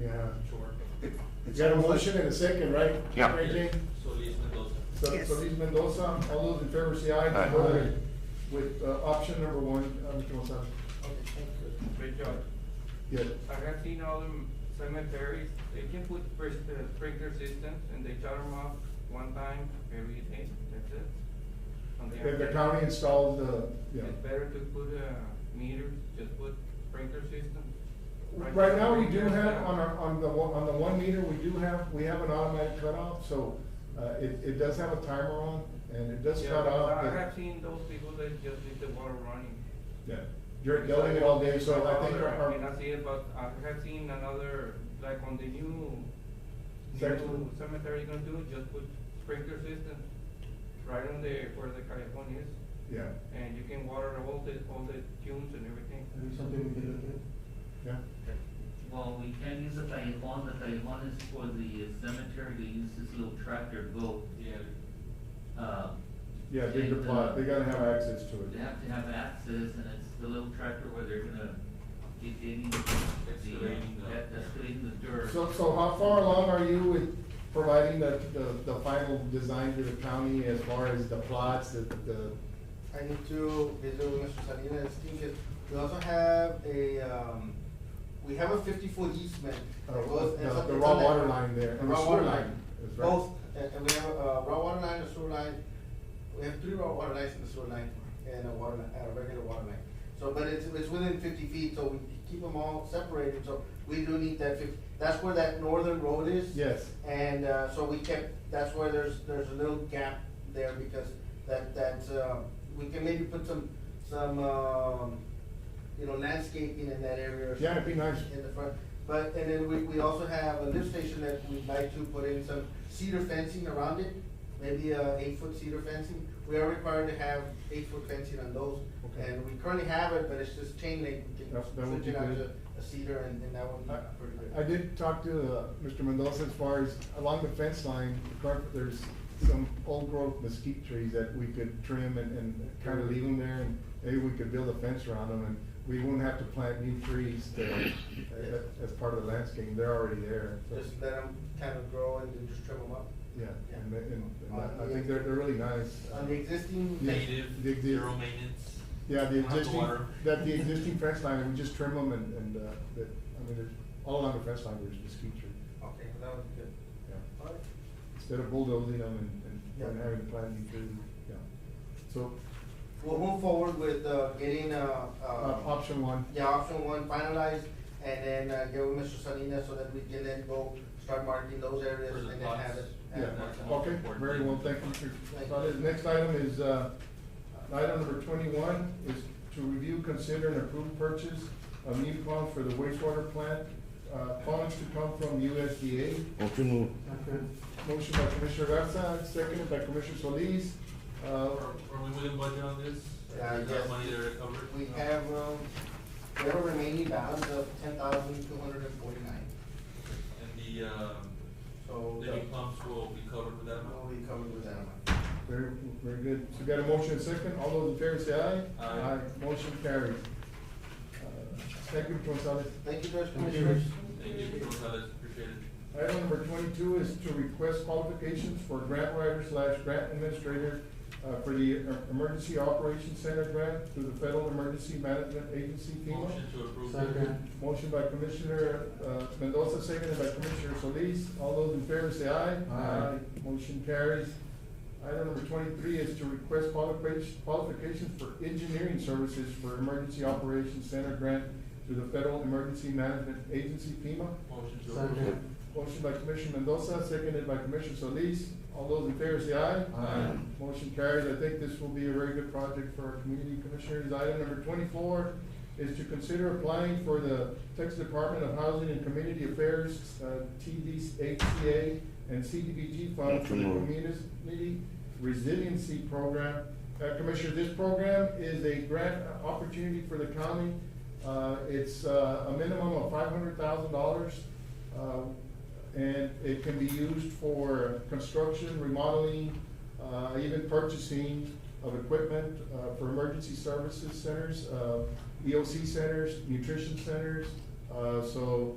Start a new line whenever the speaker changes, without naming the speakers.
Yeah.
Sure.
You got a motion and a second, right?
Yeah.
Mary Jane?
Solis Mendoza.
So,
Yes.
Solis Mendoza, all those in favor say aye.
Aye.
Vote With, uh, option number one, uh, Mr. Gonzalez.
Great job.
Yes.
I have seen all them cemeteries, they can put spr- uh, sprinkler systems and they shut them off one time every day, that's it. On the
If the
outside.
county installs the, yeah.
It's better to put a meter, just put sprinkler system.
Right now, we do have, on our, on the, one- on the one meter, we do have, we have an automatic cutoff, so, uh, it, it does have a timer on, and it does
Yeah,
cut
but
off.
I
but-
have seen those people that just leave the water running.
Yeah, you're yelling it all day, so I think our-
I mean, I
our,
see it, but I have seen another, like on the new, new
Section.
cemetery gonna do, just put sprinkler system right on the, where the callejón is,
yeah,
and you can water all the, all the tunes and everything.
something we can look yeah.
Well, we can use the Taiwan, the Taiwan is for the cemetery, they use this little tractor boat.
Yeah.
uh,
Yeah, big
and,
plot,
uh,
they gotta have access to
They
it.
have to have access, and it's the little tractor where they're gonna get digging, the,
Excavating the-
that- excavating the dirt.
So, so how far along are you with providing the, the, the final design to the county as far as the plots, the, the,
I need to visit with Mr. Salinas Tinker. We also have a, um, we have a fifty-foot easement.
Uh,
that goes-
the-
it's a-
the
it's
raw
a net-
water line there,
the
and the
Raw
sewer
water
line
line,
is right.
both, and, and we have a raw water line, a sewer line. We have three raw water lines and a sewer line, and a water, li- a regular water line. So, but it's, it's within fifty feet, so we keep them all separated, so we do need that fifty, that's where that northern road is.
yes,
And uh, so we kept, that's where there's, there's a little gap there because that, that, uh, we can maybe put some, some, um, you know, landscaping in that area. or
Yeah, it'd be nice.
something In the front, but, and then we, we also have a lift station that we'd like to put in some cedar fencing around it, maybe a eight-foot cedar fencing. We are required to have eight-foot fencing on those,
Okay.
and we currently have it, but it's just chain link, we can
That's- that would
switch
be
it out
good.
to a cedar and, and that would be
I-
pretty good.
I did talk to uh, Mr. Mendoza as far as along the fence line, current- there's some old growth mesquite trees that we could trim and, and kind of leave them there and maybe we could build a fence around them and we won't have to plant new trees there uh, as part of the landscaping. They're already there. so-
Just let them kind of grow and then just trim them up.
Yeah, and, they- and and I- I think they're, they're really nice.
On the existing,
Yeah.
fence,
Native, Dig deep. zero
maintenance.
Yeah, the
Not the
existing,
water.
that the existing fence line, we just trim them and, and, uh, that, I mean, there's, all along the fence line, there's mesquite tree.
okay, that would be good.
Yeah.
All right.
Instead of bulldozing them and, and
Yeah.
having to plant new trees, yeah. So,
We'll move forward with uh, getting, uh,
uh,
uh,
option one,
yeah, option one finalized and then uh, get with Mr. Salinas so that we can then go start marking those areas
For the
and then have
plots.
it.
yeah,
have it marked.
okay, very well, thank you, Mr.
Thank you.
Salas. Next item is, uh, item number twenty-one is to review, consider, and approve purchase of new pumps for the wastewater plant, uh, funds to come from USDA.
Motion move.
Motion by Commissioner Garza, seconded by Commissioner Solis. Uh,
Are are we within budget on this?
Yeah,
Is that
yes.
money there covered?
We have, um, we have a remaining balance of ten thousand two hundred and forty-nine,
And the, um,
so. uh,
the new pumps will be covered with that amount?
We'll be covered with that amount.
Very, very good. So we got a motion and second. All those in favor say aye.
Aye.
Motion carries. Uh, Thank you, Gonzalez.
Thank you, Judge
Thank you.
Commissioners.
Thank you, Mr. Gonzalez, appreciate it.
Item number twenty-two is to request qualifications for grant writer slash grant administrator uh, for the uh, Emergency Operations Center grant through the Federal Emergency Management Agency FEMA.
Motion to approve.
Motion by Commissioner uh, Mendoza, seconded by Commissioner Solis. All those in favor say aye.
Aye.
Motion carries. Item number twenty-three is to request qualification- qualifications for engineering services for Emergency Operations Center grant through the Federal Emergency Management Agency FEMA.
Motion to approve.
Second.
Motion by Commissioner Mendoza, seconded by Commissioner Solis. All those in favor say aye.
Aye.
Motion carries. I think this will be a very good project for our community commissioners. Item number twenty-four is to consider applying for the Texas Department of Housing and Community Affairs, uh, TDHCA and CDBG fund for the
Motion.
Community Resiliency Program. Uh, Commissioner, this program is a grant opportunity for the county. Uh, it's, uh, a minimum of five hundred thousand dollars. uh, And it can be used for construction, remodeling, uh, even purchasing of equipment, uh, for emergency E services centers, uh, EOC centers, nutrition centers. Uh, so